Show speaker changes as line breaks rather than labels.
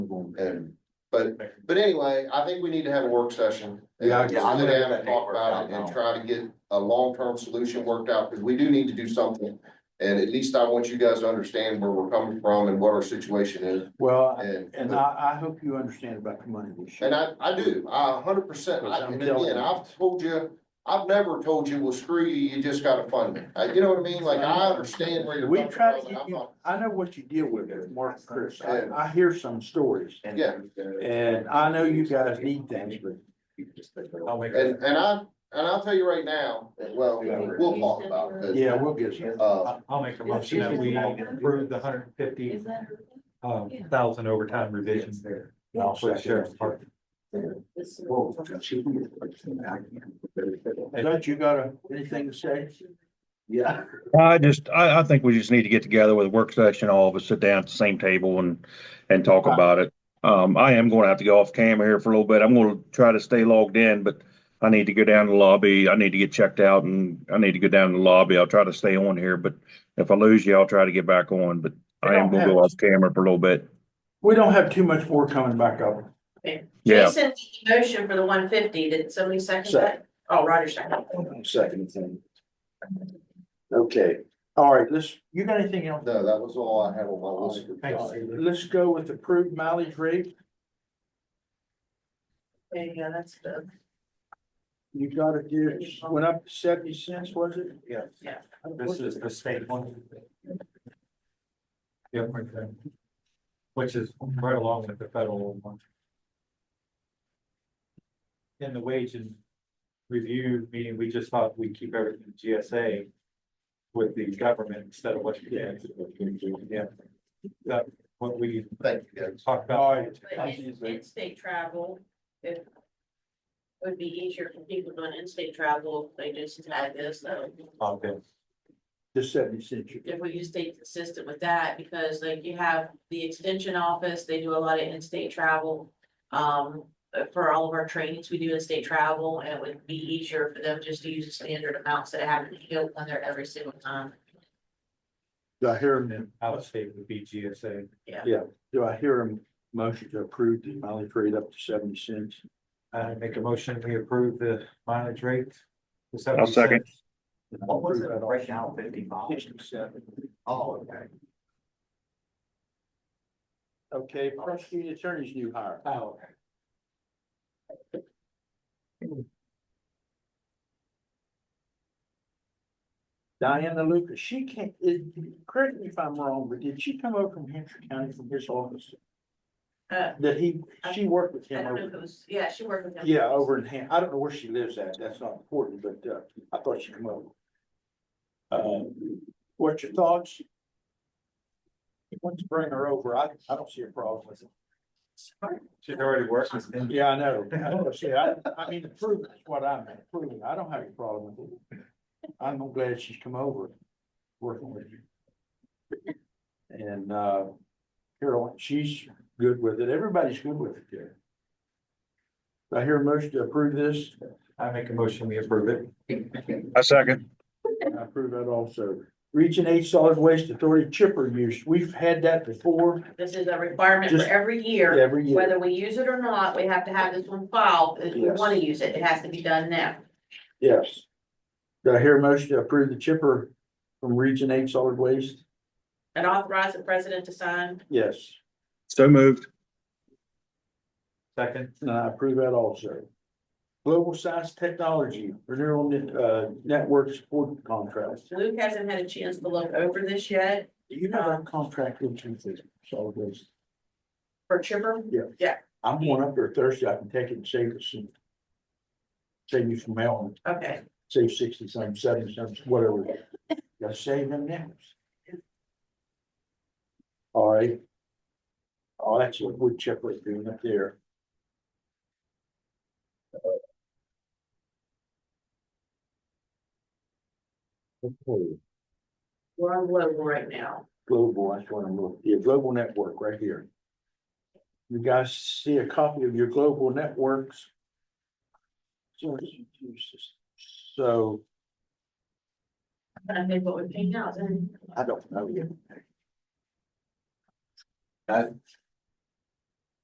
um, and, but, but anyway, I think we need to have a work session.
Yeah, I
And
agree.
Sit down and talk
Work out
about it and
now.
try to get a long-term solution worked out, because we do need to do something. And at least I want you guys to understand where we're coming from and what our situation is,
Well,
and.
and I, I hope you understand about the money this year.
And I, I do, I a hundred percent, I- and again, I've told you, I've never told you, well, screw you, you just gotta fund it. Uh, You know what I mean? Like, I understand where you're
We
coming from.
try to
and
get
I'm
you-
not-
I know what you deal with, there, Mark, and Chris, I, I hear some stories,
Yeah.
and I know you guys need things, but
I'll make
And, and I, and I'll tell you right now, well, we'll talk about it. 'cause,
yeah, we'll get some.
Uh,
I'll make a motion that we approve the hundred and fifty
Is that
uh
her?
thousand overtime revisions there.
And I'll
For the
second
sheriff's
it.
department.
This is-
Don't you got a- anything to say?
Yeah.
I just, I, I think we just need to get together with a work session, all of us sit down at the same table and, and talk about it. Um, I am going to have to go off camera here for a little bit. I'm going to try to stay logged in, but I need to go down to the lobby. I need to get checked out and I need to go down to the lobby. I'll try to stay on here, but if I lose you, I'll try to get back on, but I am going to go off camera for a little bit.
We don't have too much more coming back up.
Yeah.
Jason, the motion for the one fifty, did somebody second that? Oh, Roger second.
Second thing. Okay, all right, let's, you got anything else?
no, that was all I had on my
Oh,
list. for
Thank
tonight.
you.
Let's go with approved mileage rate.
There you go, that's good.
You gotta do, went up to seventy cents, was it?
Yeah,
Yeah.
this is the state one. Yep, right there. Which is right along with the federal one. In the wage and review meeting, we just thought we'd keep everything GSA with the government instead of what you get. Yeah. That, what we
Thank you, guys.
talked
All
about.
right.
But in- in-state travel, if. it Would be easier for people doing in-state travel, if they just had this, so
Okay.
The seventy cents. you-
if we just stay consistent with that, because like you have the extension office, they do a lot of in-state travel. Um, for all of our trainings, we do in-state travel, and it would be easier for them just to use the standard amounts that happen to go on there every single time.
Do I hear
And
him,
then out of state would be GSA.
do I hear him motion to approve the mileage rate up to seventy cents?
I Uh, make a motion, we approve the mileage rate. the
I'll second.
70 cents.
What was it, right
now, fifty
Sixty-seven.
Oh, okay.
Okay, prosecuting attorney's new hire.
Oh, okay.
Diana Lucas, she can't, is, correct me if I'm wrong, but did she come over from Hampshire County from his office?
Uh,
That he, she worked with
I
him
don't know
over,
who's, yeah, she worked with them.
yeah, over in Ham, I don't know where she lives at, that's not important, but, uh, I thought she come over. Um, what's your thoughts? Let's bring her over, I, I don't see a problem with it.
She's already working.
Yeah, I know. I know. See, I, I mean, approving is what I'm approving. I don't have a problem with it. I'm glad she's come over, working with you. And, uh, Carolyn, she's good with it. Everybody's good with it there. Do I hear a motion to approve this.
I make a motion, we approve it.
I second.
I approve that also. Region Eight Solid Waste Authority chipper use. We've had that before
This is a requirement for
Just-
every year,
every year.
whether we use it or not, we have to have this one filed, if we
Yes.
wanna use it, it has to be done now.
Yes. Do I hear a motion to approve the chipper from Region Eight Solid Waste?
And authorize the president to sign,
Yes.
So moved.
Second,
And I approve that also. Global Science Technology Renewal Net- uh, Network Support Contract.
Luke hasn't had a chance to look over this yet,
Do you have a contract with you for solid waste?
for Chipper,
I'm going up there Thursday. I can take it and save us some. Save you some mail,
okay.
save sixty some, seventy some, whatever. Gotta save them now. All right. Oh, that's what wood chipper is doing up there. Okay.
We're on global right now.
Global, that's what I'm looking, yeah, global network right here. You guys see a copy of your global networks? So, So,
And I think what we're paying out, and
I don't know yet.
I,